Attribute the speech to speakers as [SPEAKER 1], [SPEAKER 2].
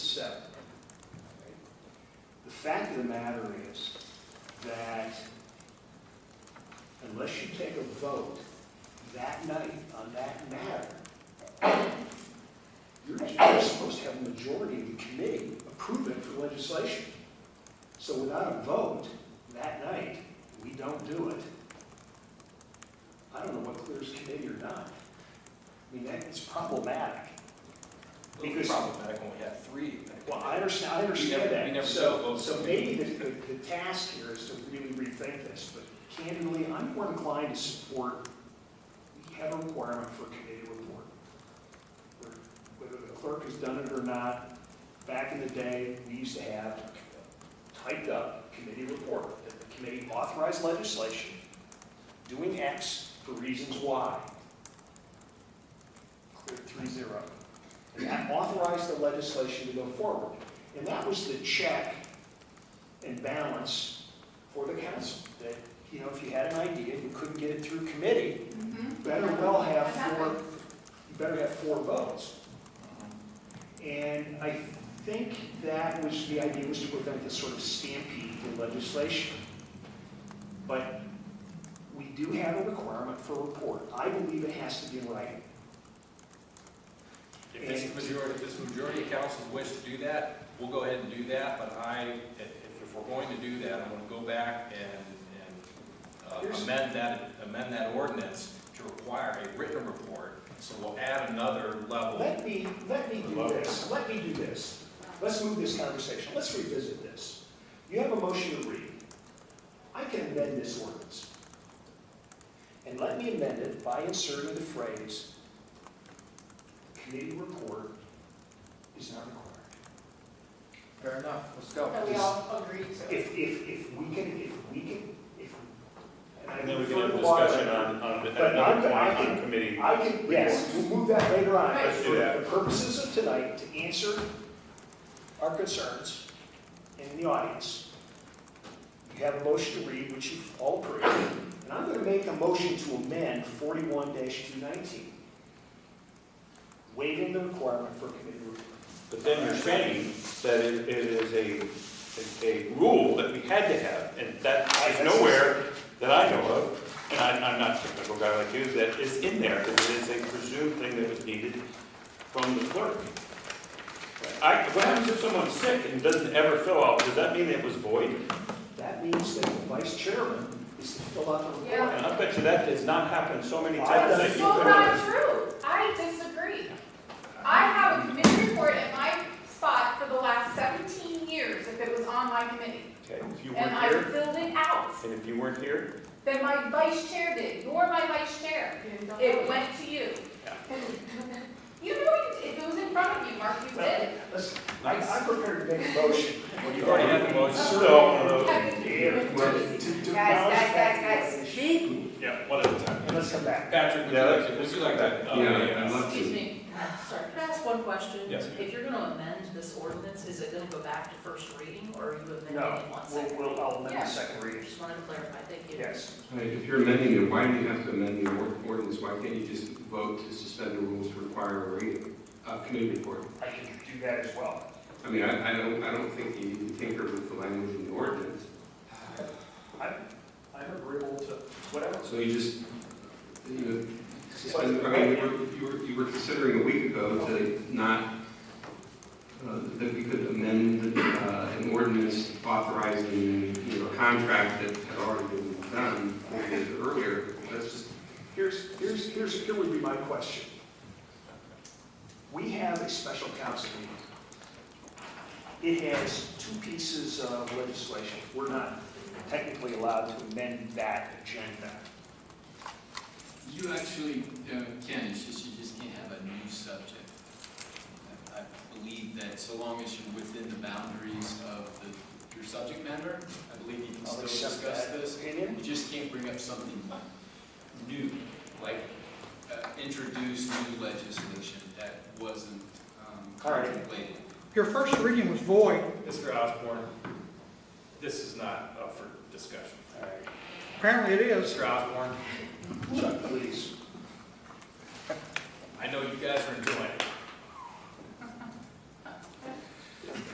[SPEAKER 1] seven.
[SPEAKER 2] The fact of the matter is that unless you take a vote that night on that matter, you're just supposed to have a majority of the committee approve it for legislation. So without a vote that night, we don't do it. I don't know what clears committee or not. I mean, that is problematic.
[SPEAKER 1] It's problematic when we have three.
[SPEAKER 2] Well, I understand, I understand
[SPEAKER 1] never-
[SPEAKER 2] that.
[SPEAKER 1] we never
[SPEAKER 2] So-
[SPEAKER 1] vote.
[SPEAKER 2] So maybe the, the the task here is to really rethink this, but candidly, I'm more inclined to support, we have a requirement for a committee report. Where- Whether the clerk has done it or not, back in the day, we used to have a typed up committee report, that the committee authorized legislation, doing X for reasons Y. Clear three zero. And that authorized the legislation to go forward. And that was the check and balance for the council, that, you know, if you had an idea and you couldn't get it through committee, you better well have four, you better have four votes. And I think that was, the idea was to prevent this sort of stampede to legislation. But we do have a requirement for a report. I believe it has to be in writing.
[SPEAKER 3] If this majority, if this majority of council wish to do that, we'll go ahead and do that, but I, if, if we're going to do that, I'm gonna go back and, and uh,
[SPEAKER 2] Here's-
[SPEAKER 3] amend that, amend that ordinance to require a written report, so we'll add another level.
[SPEAKER 2] Let me, let me do this, let me do this. Let's move this conversation, let's revisit this. You have a motion to read. I can amend this ordinance. And let me amend it by inserting the phrase, committee report is not required.
[SPEAKER 1] Fair enough, let's go.
[SPEAKER 4] That we all agree to.
[SPEAKER 2] If, if, if we can, if we can, if. I
[SPEAKER 5] And then we can have a
[SPEAKER 2] refer to Laura.
[SPEAKER 5] discussion on, on, at
[SPEAKER 2] But
[SPEAKER 5] another
[SPEAKER 2] I- I
[SPEAKER 5] point on
[SPEAKER 2] can-
[SPEAKER 5] committee.
[SPEAKER 2] I can, yes, we'll move that later on.
[SPEAKER 4] Right.
[SPEAKER 5] Let's do that.
[SPEAKER 2] For the purposes of tonight, to answer our concerns in the audience, you have a motion to read, which you've all approved, and I'm going to make a motion to amend forty-one two nineteen, waiving the requirement for committee review.
[SPEAKER 5] But then you're saying that it, it is a, a rule that we had to have, and that is nowhere that I know of, and I, I'm not a technical guy like you, that is in there, that it is a presumed thing that was needed from the clerk. I, what happens if someone's sick and doesn't ever fill out, does that mean it was void?
[SPEAKER 2] That means that the vice chairman is to fill out the report.
[SPEAKER 4] Yeah.
[SPEAKER 5] And I bet you that has not happened so many
[SPEAKER 2] Why does-
[SPEAKER 5] times that
[SPEAKER 4] That's
[SPEAKER 5] you
[SPEAKER 4] so
[SPEAKER 5] could
[SPEAKER 4] not
[SPEAKER 5] have.
[SPEAKER 4] true. I disagree. I have a committee report in my spot for the last seventeen years if it was on my committee.
[SPEAKER 5] Okay, if you
[SPEAKER 4] And
[SPEAKER 5] weren't
[SPEAKER 4] I
[SPEAKER 5] here,
[SPEAKER 4] filled it out.
[SPEAKER 5] and if you weren't here,
[SPEAKER 4] Then my vice chair did. You're my vice chair. It went to you.
[SPEAKER 5] Yeah.
[SPEAKER 4] You know, you- if it was in front of you, Mark, you did.
[SPEAKER 2] Listen, I- I'm prepared to make a motion.
[SPEAKER 3] Well, you already have the motion.
[SPEAKER 5] So, uh,
[SPEAKER 4] Have it-
[SPEAKER 2] guys, guys, guys.
[SPEAKER 5] yeah, one at a time.
[SPEAKER 2] And let's come back.
[SPEAKER 3] Patrick, would you
[SPEAKER 5] Yeah,
[SPEAKER 3] like
[SPEAKER 5] let's-
[SPEAKER 3] to, would
[SPEAKER 5] let's
[SPEAKER 3] you like
[SPEAKER 5] go
[SPEAKER 3] to?
[SPEAKER 5] back.
[SPEAKER 3] oh,
[SPEAKER 6] Yeah,
[SPEAKER 3] yeah.
[SPEAKER 6] I'd love
[SPEAKER 7] Excuse
[SPEAKER 6] to.
[SPEAKER 7] me, sorry, can I ask one question?
[SPEAKER 3] Yes, ma'am.
[SPEAKER 7] If you're gonna amend this ordinance, is it gonna go back to first reading, or are you amending
[SPEAKER 2] No,
[SPEAKER 7] it in one
[SPEAKER 2] we'll,
[SPEAKER 7] second?
[SPEAKER 2] we'll, I'll amend the
[SPEAKER 4] Yeah.
[SPEAKER 2] second reading.
[SPEAKER 7] Just wanted to clarify, thank you.
[SPEAKER 2] Yes.
[SPEAKER 6] Hey, If you're amending it, why do you have to amend the or- ordinance? Why can't you just vote to suspend the rules to require a reading, a committee report?
[SPEAKER 2] I can do that as well.
[SPEAKER 6] I mean, I, I don't, I don't think you need to tinker with the language in the ordinance.
[SPEAKER 2] I'm agreeable to whatever.
[SPEAKER 6] So you just, you know, suspend, I mean, we were- you were, you were considering a week ago to not, uh, that we could amend uh, an ordinance authorizing, you know, a contract that had already been done four years earlier. That's just
[SPEAKER 2] Here's, here's, here's, here would be my question. We have a special council meeting. It has two pieces of legislation. We're not technically allowed to amend that agenda.
[SPEAKER 8] You actually uh, can, it's just, you just can't have a new subject. I I believe that so long as you're within the boundaries of the- your subject matter, I believe you can
[SPEAKER 2] I'll
[SPEAKER 8] still
[SPEAKER 2] accept
[SPEAKER 8] discuss
[SPEAKER 2] that
[SPEAKER 8] this.
[SPEAKER 2] Opinion?
[SPEAKER 8] You just can't bring up something new, like uh, introduce new legislation that wasn't um,
[SPEAKER 2] All right.
[SPEAKER 8] contemplated.
[SPEAKER 9] Your first reading was void.
[SPEAKER 3] Mr. Osborne, this is not up for discussion.
[SPEAKER 2] All right.
[SPEAKER 9] Apparently it is.
[SPEAKER 3] Mr. Osborne,
[SPEAKER 2] Chuck, please.
[SPEAKER 3] I know you guys are enjoying it.